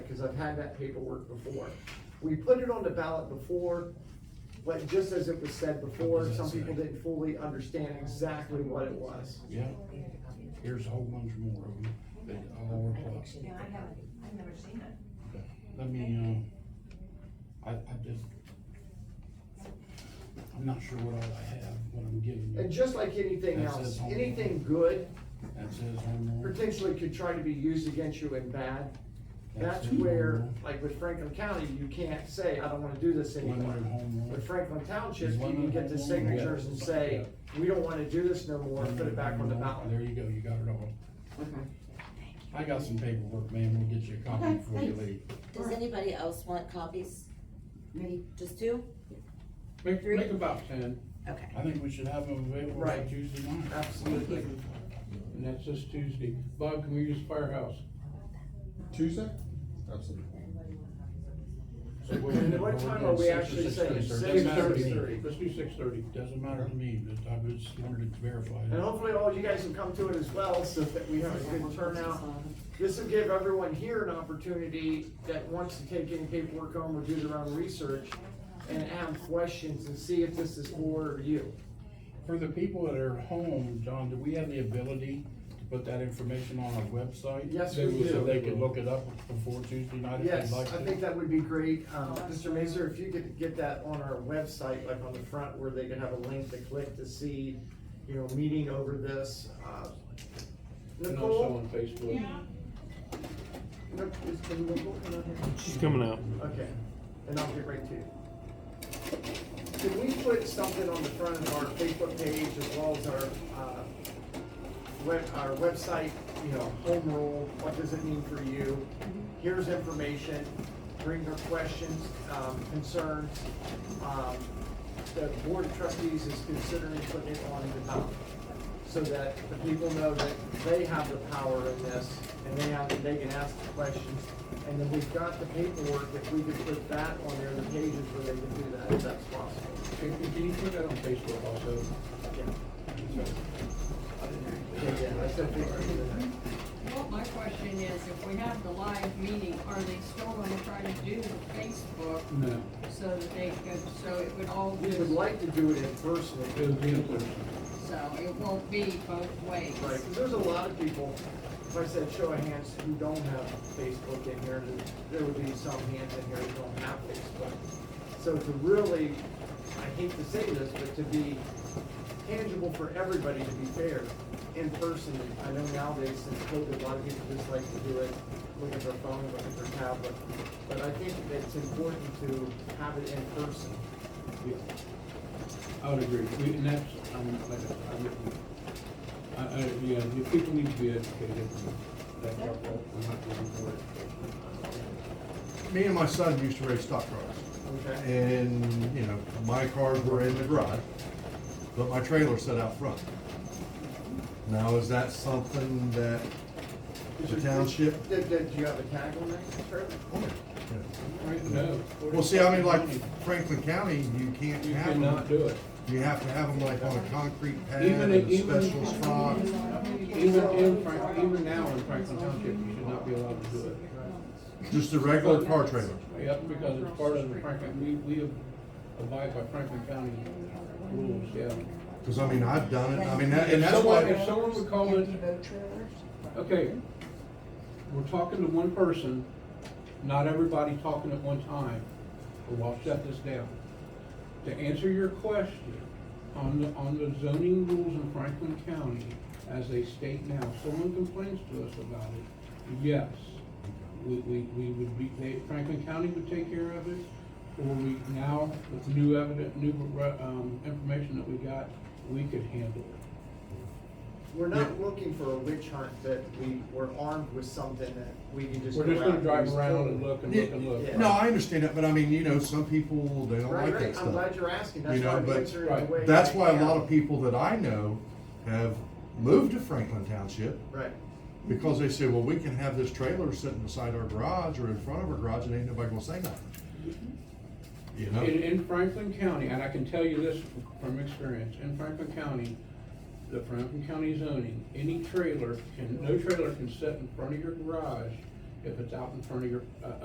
because I've had that paperwork before. We put it on the ballot before, but just as it was said What before, does that some people say? didn't fully understand exactly what it was. Yeah, here's a whole bunch more of them, that all are plus. Yeah, I haven't, I've never seen it. Let me, um, I, I just, I'm not sure what all I have, what I'm giving And you. just like anything That else, says home. anything good That says home rule. potentially could try to be used against you in bad. that That's says where, home like with Franklin County, you can't say, I don't wanna do this rule, anymore. Limited home rule. With Franklin Township, Is you one can of get them the one? signatures Yeah. and say, we don't wanna do this no more, and put it back on the Limited home rule. ballot. There you go, you got it all. Okay. I got some paperwork, man, we'll get you a copy Okay, before you thanks. leave. Does anybody else want copies? Me. Just two? Make, Three? make about ten, Okay. I think we should have them available by Right. Tuesday night. Absolutely. And that's this Tuesday. Bob, can we use firehouse? Tuesday? Absolutely. So we'll- And what time are we Six or actually six thirty, saying? sir. Six Doesn't matter to me. thirty. Let's do six thirty. Doesn't matter to me, but I just wanted to verify. And that. hopefully all you guys will come to it as well, so that we have a good turnout. This will give everyone here an opportunity that wants to take any paperwork home or do their own research and ask questions and see if this is for you. For the people that are home, John, do we have the ability to put that information on our website? Yes, we So do. they could look it up before Tuesday night if Yes, they'd I like to? think that would be great. Um, Mr. Mazur, if you could get that on our website, like on the front where they could have a link to click to see, you know, meeting over this. Uh, And also Nicole, on Facebook. Nic- is is Nicole coming out here? She's coming out. Okay, and I'll get right to you. Can we put something on the front of our Facebook page as well as our, uh, web, our website, you know, home rule, what does it mean for you? Here's information, bring your questions, um, concerns. Um, The board of trustees is considering putting it on the ballot so that the people know that they have the power in this and they have, they can ask the questions. And then we've got the paperwork, if we could put that on there, the pages where they can do that, if that's possible. Can, can you put that on Facebook also? Yeah, yeah, I said paperwork. Well, my question is, if we have the live meeting, are they still gonna try to do the Facebook No. so that they could, so it would all We just, would like to do it in person. It'll be in person. so it won't be both ways? Right, 'cause there's a lot of people, if I said show of hands, who don't have Facebook in here, there there would be some hands in here who don't have Facebook. So to really, I hate to say this, but to be tangible for everybody, to be fair, in person, I know nowadays since COVID, a lot of people just like to do it, look at their phone, look at their tablet. But I think it's important to have it in person. Yeah. I would agree. We, and that's, I'm, like, I'm, I, I, yeah, the people need to be educated. That's our fault. We're not giving them more education. Me and my son used to race stock cars, Okay? and, you know, my cars were in the garage, but my trailer set out front. Now, is that something that the township? Did, did you have a tag on that, Trevor? Oh, Right, no. Well, see, I mean, like Franklin County, you can't You have them, cannot do it. you have to have them like on a concrete pad Even in if- a even- special spot. Even in Frank, even now in Franklin Township, you should not be allowed to do it. Just a regular car trailer. Yep, because it's part of the Franklin, we, we abide by Franklin County rules, yeah. Cause I mean, I've done it, I mean, that- and If that's someone, if why, someone would call it, okay, we're talking to one person, not everybody talking at one time, but we'll shut this down. To answer your question, on the, on the zoning rules in Franklin County, as they state now, if someone complains to us about it, yes. We, we, we would be, they, Franklin County would take care of it, or we, now, with new evidence, new, um, information that we got, we could handle it. We're not looking for a witch hunt that we, we're armed with something that we can just. We're go just gonna out drive use. around and look and look and Yeah. look. no, I understand that, but I mean, you know, some people, they don't Right, like that right, stuff. I'm glad you're asking, that's You why know, I'm but- answering the Right. way. That's I why a lot am. of people that I know have moved to Franklin Township Right, because they say, well, we can have this trailer sitting beside our garage or in front of our garage and ain't nobody gonna say nothing. You In, know? in Franklin County, and I can tell you this from experience, in Franklin County, the Franklin County zoning, any trailer can, no trailer can sit in front of your garage if it's out in front of your, uh,